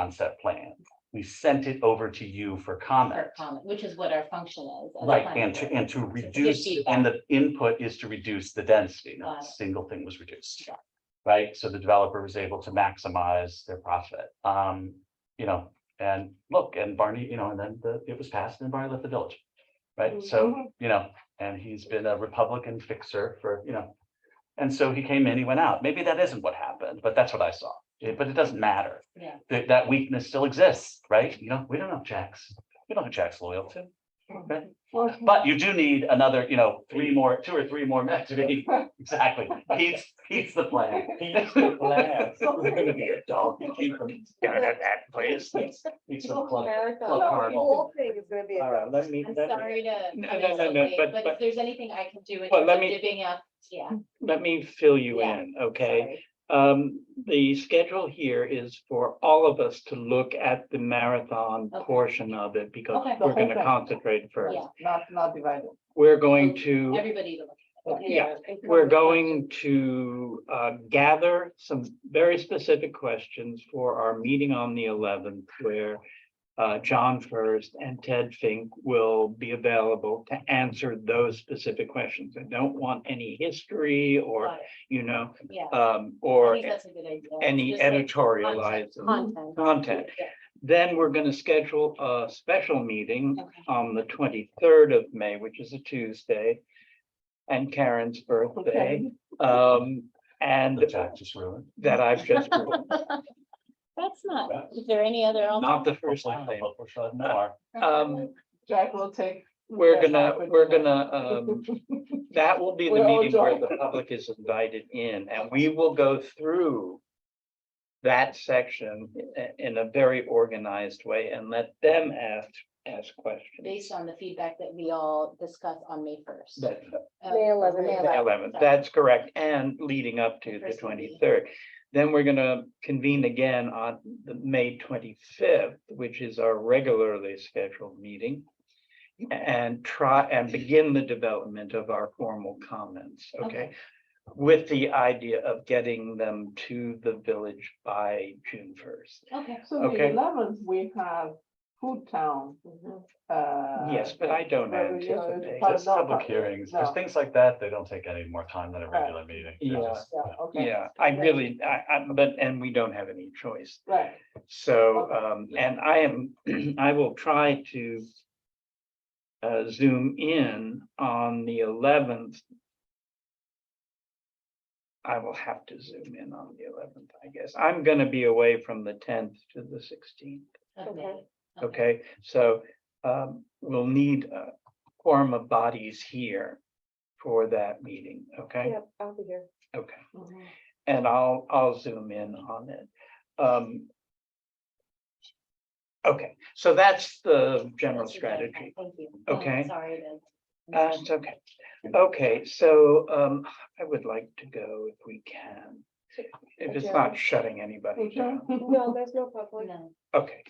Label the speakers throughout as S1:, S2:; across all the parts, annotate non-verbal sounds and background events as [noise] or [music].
S1: concept plan. We sent it over to you for comment.
S2: per comment, which is what our function is. as a
S1: Right,
S2: planning
S1: and to,
S2: board.
S1: and to
S2: good
S1: reduce,
S2: feedback.
S1: and the input is to reduce the density, not a
S2: Got it.
S1: single thing was reduced.
S2: Got
S1: Right, so the developer was able to maximize their profit, um, you know, and look, and Barney, you know, and then the, it was passed and Barney left the village. Right,
S2: Mm-hmm.
S1: so, you know, and he's been a Republican fixer for, you know. And so he came in, he went out, maybe that isn't what happened, but that's what I saw, It- but it doesn't matter.
S2: Yeah.
S1: That, that weakness still exists, right, you know, we don't know Jack's, we don't know who Jack's loyal to. But you do need another, you know, three more, two or three more men to be, [laughs] exactly, he's, he's the plan.
S3: He's the plan.
S1: Someone's gonna be a dog to keep him down at that place. He's he's the plug. plug
S4: The
S1: cardinal.
S4: whole thing is gonna be.
S3: All right, let me,
S2: I'm
S3: let me,
S2: sorry to.
S3: No,
S2: come
S3: no,
S2: in
S3: no,
S2: so
S3: no,
S2: late,
S3: but-
S2: But
S3: but-
S2: if there's anything I can do. in
S3: Well, let
S2: terms
S3: me-
S2: of Divvying up, yeah.
S3: let me fill you
S2: Yeah.
S3: in, okay?
S2: sorry.
S3: Um, the schedule here is for all of us to look at the marathon
S2: Okay.
S3: portion of it because
S2: Okay. The
S3: we're
S4: whole
S3: gonna
S4: thing.
S3: concentrate first.
S2: Yeah,
S4: Not, not divided.
S3: We're going to.
S2: everybody to look at. it.
S3: Yeah, We're going to uh, gather some very specific questions for our meeting on the eleventh where uh, John First and Ted Fink will be available to answer those specific questions. I don't want any history or,
S2: Got it.
S3: you know,
S2: Yeah.
S3: um,
S2: I
S3: or
S2: think that's a good idea.
S3: any
S2: Just like
S3: editorialized
S2: Content.
S3: content.
S2: Yeah,
S3: Then we're going to schedule a special meeting
S2: Okay,
S3: on the twenty-third of May, which is a Tuesday, and Karen's birthday. Um, and
S1: The Jack just ruined.
S3: that I've
S4: [laughs]
S3: just,
S2: that's not, is there any other?
S3: not the first
S4: Oh,
S1: Hopefully-
S3: time.
S1: hopefully she'll have more.
S3: Um,
S4: Jack will take.
S3: We're
S4: Yeah,
S3: gonna,
S4: Jack would
S3: we're
S4: do that.
S3: gonna, um,
S4: [laughs]
S3: that will be the
S4: We're all
S3: meeting where
S4: joined. [laughs]
S3: the public is invited in, and we will go through that section i- in a very organized way and let them ask, ask questions.
S2: Based on the feedback that we all discussed on May first. Uh,
S3: That,
S4: May 11th.
S2: May
S4: May
S3: The
S2: 11th.
S3: eleventh, that's correct, and leading up to the
S2: First meeting.
S3: twenty-third. Then we're gonna convene again on the May twenty-fifth, which is our regularly scheduled meeting. And try and begin the development of our formal comments, okay? With the idea of getting them to the village by June first.
S2: Okay.
S4: So the
S3: Okay.
S4: eleventh, we have Food Town. uh,
S3: Yes, but I don't
S4: Well, you know, it's
S3: anticipate.
S4: part
S1: Just
S4: no,
S1: public
S4: no,
S1: hearings, because
S4: no.
S1: things like that, they don't take any more time than a regular meeting. They're
S3: Yeah.
S1: just,
S4: Yeah,
S1: you know,
S4: okay.
S3: Yeah, I
S4: Right.
S3: really, I, I, but, and we don't have any choice
S4: Right,
S3: So,
S4: Okay.
S3: um, and I am, [clears throat] I will try to uh, zoom in on the eleventh. I will have to zoom in on the eleventh, I guess. I'm gonna be away from the tenth to the sixteenth,
S2: of May.
S4: Okay.
S3: okay? So, um, we'll need a quorum of bodies here for that meeting, okay?
S5: Yep, I'll be here.
S3: Okay.
S4: mhm.
S3: And I'll, I'll zoom in on it. Um. Okay, so that's the general
S2: That's your plan.
S3: strategy.
S2: Thank you. Um,
S3: Okay.
S2: Sorry to.
S3: Uh, it's okay. Okay, so, um, I would like to go if we can. If it's not shutting anybody down. [laughs]
S5: No, there's no public.
S2: No.
S3: Okay,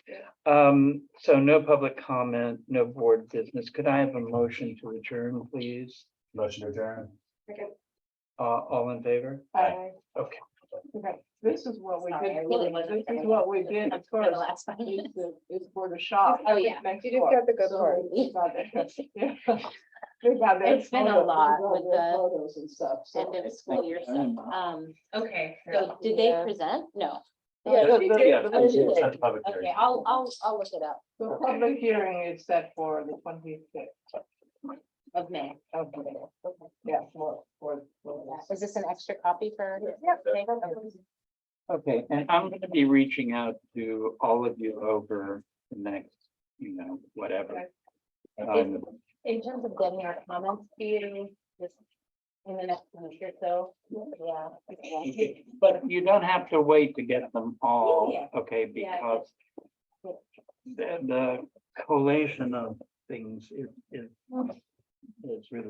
S3: um, so no public comment, no board business. Could I have a motion to adjourn, please?
S1: Motion to adjourn.
S3: Uh, all in favor?
S4: I-
S3: Okay.
S4: okay. This is what we
S2: Sorry, I
S4: did,
S2: really
S4: first.
S2: wasn't
S4: this is
S2: paying
S4: what we
S2: attention
S4: did at
S2: For the
S4: first,
S2: last five
S4: is
S2: minutes.
S4: the- is for the shop.
S2: Oh, yeah.
S4: next
S5: You just
S4: door.
S5: got the good
S4: So
S5: part.
S4: we got that- yeah.
S5: [laughs]
S4: We got that
S2: It's been a
S4: photo-
S2: lot
S4: we got
S2: with
S4: their
S2: the
S4: Photos and stuff, so.
S2: End of school year stuff. Um,
S6: Okay.
S2: so did they
S5: Yeah.
S2: present? No.
S5: Yeah,
S4: The-
S5: she
S4: the-
S5: did.
S4: the-
S2: Oh, she
S1: It's
S2: did.
S1: not the public hearing.
S2: Okay, I'll, I'll, I'll look it up
S4: The
S3: Okay.
S4: public hearing is set for the twenty-fifth
S2: of May.
S4: of May. Yeah, for, for. for this.
S2: Is this an extra copy for?
S5: Yep.
S3: Okay, and I'm gonna be reaching out to all of you over the next, you know, whatever. Um,
S2: In terms of getting our comments to you, just in the next week or so, yeah.
S3: But you don't have to wait to get them all,
S2: Yeah,
S3: okay,
S2: Yeah, I
S3: because the, the collation of things is, is, is really